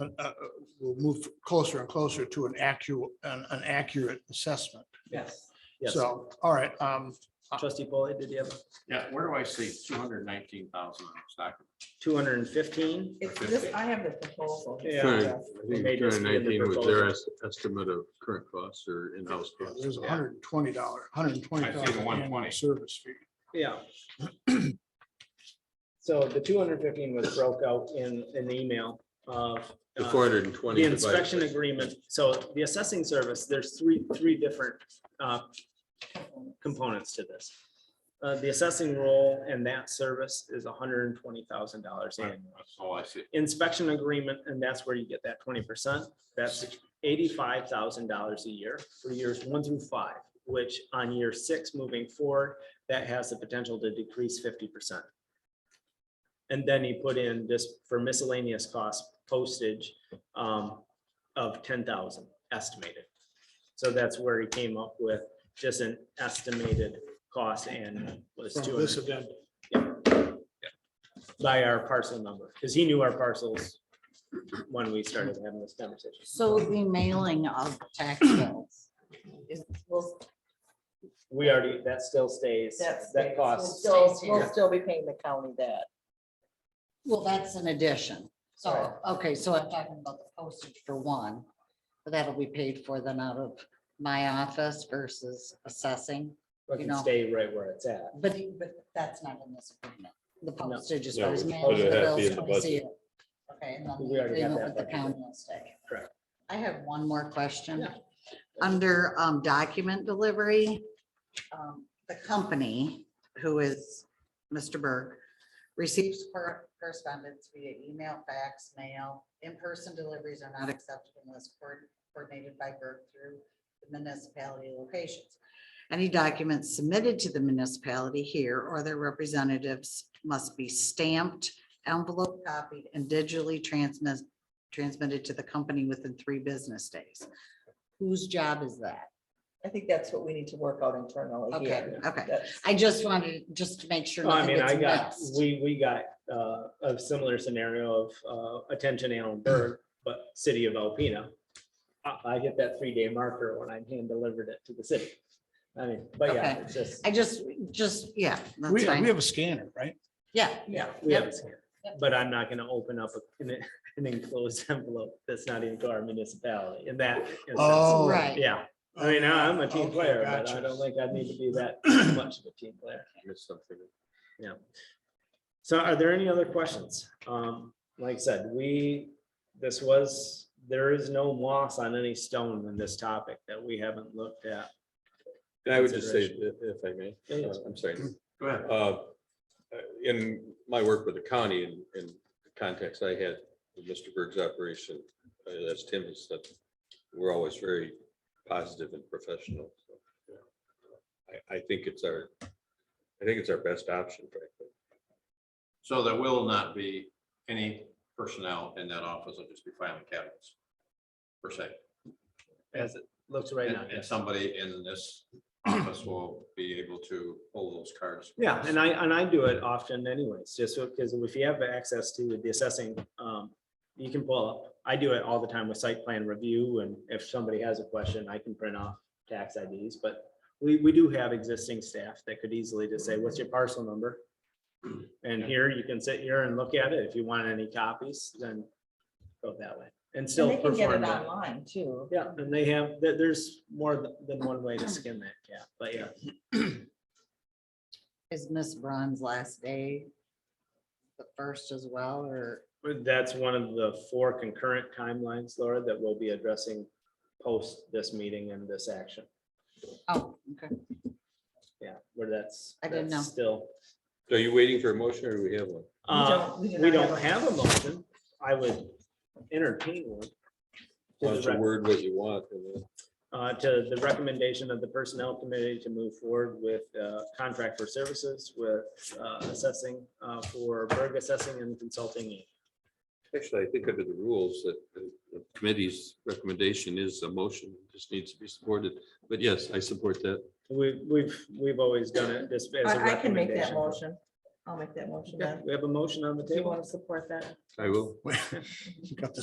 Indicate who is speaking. Speaker 1: uh, uh, we'll move closer and closer to an accurate, an an accurate assessment.
Speaker 2: Yes.
Speaker 3: Yes,
Speaker 1: So, all right, um,
Speaker 3: trustee Polly, did you have
Speaker 4: Yeah, where do I see two hundred nineteen thousand stock?
Speaker 3: two hundred and fifteen?
Speaker 2: It's this, I have the proposal.
Speaker 3: Yeah.
Speaker 5: Right. I think
Speaker 3: They just did the
Speaker 5: 219 was their
Speaker 3: proposal.
Speaker 5: es- estimate of current costs or in-house
Speaker 1: yeah,
Speaker 5: costs.
Speaker 1: there's a hundred and twenty dollar, hundred and twenty
Speaker 4: I see the
Speaker 1: dollar
Speaker 4: 120.
Speaker 1: service fee.
Speaker 3: Yeah. So the two hundred and fifteen was broke out in an email of.
Speaker 5: The
Speaker 3: uh,
Speaker 5: four hundred and twenty.
Speaker 3: The inspection agreement, so the assessing service, there's three, three different uh, components to this. Uh, The assessing role and that service is hundred and twenty thousand dollars
Speaker 4: Right.
Speaker 3: annually.
Speaker 4: That's all I see.
Speaker 3: Inspection agreement, and that's where you get that twenty percent, that's eighty-five thousand dollars a year for years one through five, which on year six moving forward, that has the potential to decrease fifty percent. And then you put in just for miscellaneous costs postage um, of ten thousand estimated. So that's where he came up with just an estimated cost and was two
Speaker 1: From this
Speaker 3: hundred
Speaker 1: event,
Speaker 3: by our parcel number, because he knew our parcels when we started having this conversation.
Speaker 6: So the mailing of tax bills. is-
Speaker 2: We'll,
Speaker 3: We already, that still stays,
Speaker 2: that's.
Speaker 3: that
Speaker 2: cost.
Speaker 3: costs.
Speaker 2: Still,
Speaker 6: stays
Speaker 2: we'll
Speaker 6: here.
Speaker 2: still be paying the county that.
Speaker 6: Well, that's an addition. So,
Speaker 2: Right.
Speaker 6: okay, so I'm talking about the postage for one. But that'll be paid for then out of my office versus assessing,
Speaker 3: It
Speaker 6: you
Speaker 3: can
Speaker 6: know.
Speaker 3: stay right where it's at.
Speaker 6: but, but that's not in this agreement. The postage is.
Speaker 7: No,
Speaker 6: what is
Speaker 7: but
Speaker 6: managed,
Speaker 7: it
Speaker 6: the
Speaker 7: has to be
Speaker 6: bills,
Speaker 7: in the
Speaker 6: when I see it. Okay, and then
Speaker 3: We
Speaker 6: the
Speaker 3: already have that
Speaker 6: agreement with the
Speaker 3: budget.
Speaker 6: county will stay.
Speaker 3: Correct.
Speaker 6: I have one more question.
Speaker 3: Yeah.
Speaker 6: Under um, document delivery, um, the company, who is Mr. Berg, receives cor- correspondence via email, fax, mail. In-person deliveries are not accepted unless coord- coordinated by Berg through the municipality locations. Any documents submitted to the municipality here or their representatives must be stamped, envelope copied, and digitally transmitted transmitted to the company within three business days. Whose job is that?
Speaker 2: I think that's what we need to work out internally
Speaker 6: Okay,
Speaker 2: here.
Speaker 6: okay.
Speaker 2: That's-
Speaker 6: I just wanted, just to make sure.
Speaker 3: I
Speaker 6: nothing
Speaker 3: mean, I
Speaker 6: gets
Speaker 3: got,
Speaker 6: missed.
Speaker 3: we, we got uh, a similar scenario of uh, attention Allen Berg, but city of Alpena. I, I hit that three-day marker when I hand delivered it to the city. I mean, but yeah,
Speaker 6: Okay.
Speaker 3: it's just,
Speaker 6: I just, just, yeah,
Speaker 1: We,
Speaker 6: that's
Speaker 1: we
Speaker 6: fine.
Speaker 1: have a scanner, right?
Speaker 6: Yeah,
Speaker 3: yeah, we have
Speaker 6: Yep.
Speaker 3: it here. But I'm not gonna open up a- an an enclosed envelope that's not even to our municipality in that. instance.
Speaker 1: Oh.
Speaker 6: right.
Speaker 3: Yeah, I mean, I- I'm a team
Speaker 1: Okay,
Speaker 3: player, but
Speaker 1: gotcha.
Speaker 3: I don't think I need to be that much of a team player. So are there any other questions? Um, like I said, we, this was, there is no moss on any stone in this topic that we haven't looked at.
Speaker 7: I would just say,
Speaker 3: consideration.
Speaker 7: if if I may,
Speaker 3: Yeah, yeah.
Speaker 7: uh, I'm sorry.
Speaker 4: Go ahead.
Speaker 7: Uh, In my work with the county and in the context I had with Mr. Berg's operation, uh, as Tim has said, we're always very positive and professional. so, yeah. I, I think it's our, I think it's our best option, frankly.
Speaker 4: So there will not be any personnel in that office. It'll just be filing cabinets. Per se.
Speaker 3: As it looks right
Speaker 4: And,
Speaker 3: now.
Speaker 4: and somebody in this office will be able to pull those cards.
Speaker 3: Yeah, and I, and I do it often anyways, just because if you have access to the assessing, um, you can pull up. I do it all the time with site plan review and if somebody has a question, I can print off tax IDs, but we, we do have existing staff that could easily just say, what's your parcel number? And here you can sit here and look at it. If you want any copies, then go that way and
Speaker 2: And
Speaker 3: still
Speaker 2: they can get
Speaker 3: perform
Speaker 2: it
Speaker 3: that.
Speaker 2: online too.
Speaker 3: Yeah, and they have, there, there's more than- than one way to skin that cat, but yeah.
Speaker 6: Is Miss Braun's last day the first as well, or?
Speaker 3: That's one of the four concurrent timelines, Laura, that we'll be addressing post this meeting and this action.
Speaker 6: Oh, okay.
Speaker 3: Yeah, where that's.
Speaker 6: I didn't
Speaker 3: that's
Speaker 6: know.
Speaker 3: Still,
Speaker 7: So Are you waiting for a motion or do we have one?
Speaker 2: We
Speaker 3: uh,
Speaker 2: don't- we do
Speaker 3: we
Speaker 2: not have
Speaker 3: don't
Speaker 2: a-
Speaker 3: have a motion. I would entertain one.
Speaker 7: Why
Speaker 3: To
Speaker 7: don't
Speaker 3: the
Speaker 7: you
Speaker 3: rec-
Speaker 7: word what you want? and then-
Speaker 3: Uh, to the recommendation of the personnel committee to move forward with, uh, contract for services with, uh, assessing, uh, for Berg assessing and consulting.
Speaker 7: Actually, I think under the rules that the the committee's recommendation is a motion, It just needs to be supported. But yes, I support that.
Speaker 3: We, we've, we've always done it this. as a
Speaker 2: I, I can make that
Speaker 3: recommendation.
Speaker 2: motion. I'll make that motion
Speaker 3: Okay,
Speaker 2: then.
Speaker 3: we have a motion on the
Speaker 2: Do you
Speaker 3: table.
Speaker 2: want to support that?
Speaker 7: I will.
Speaker 1: We Got the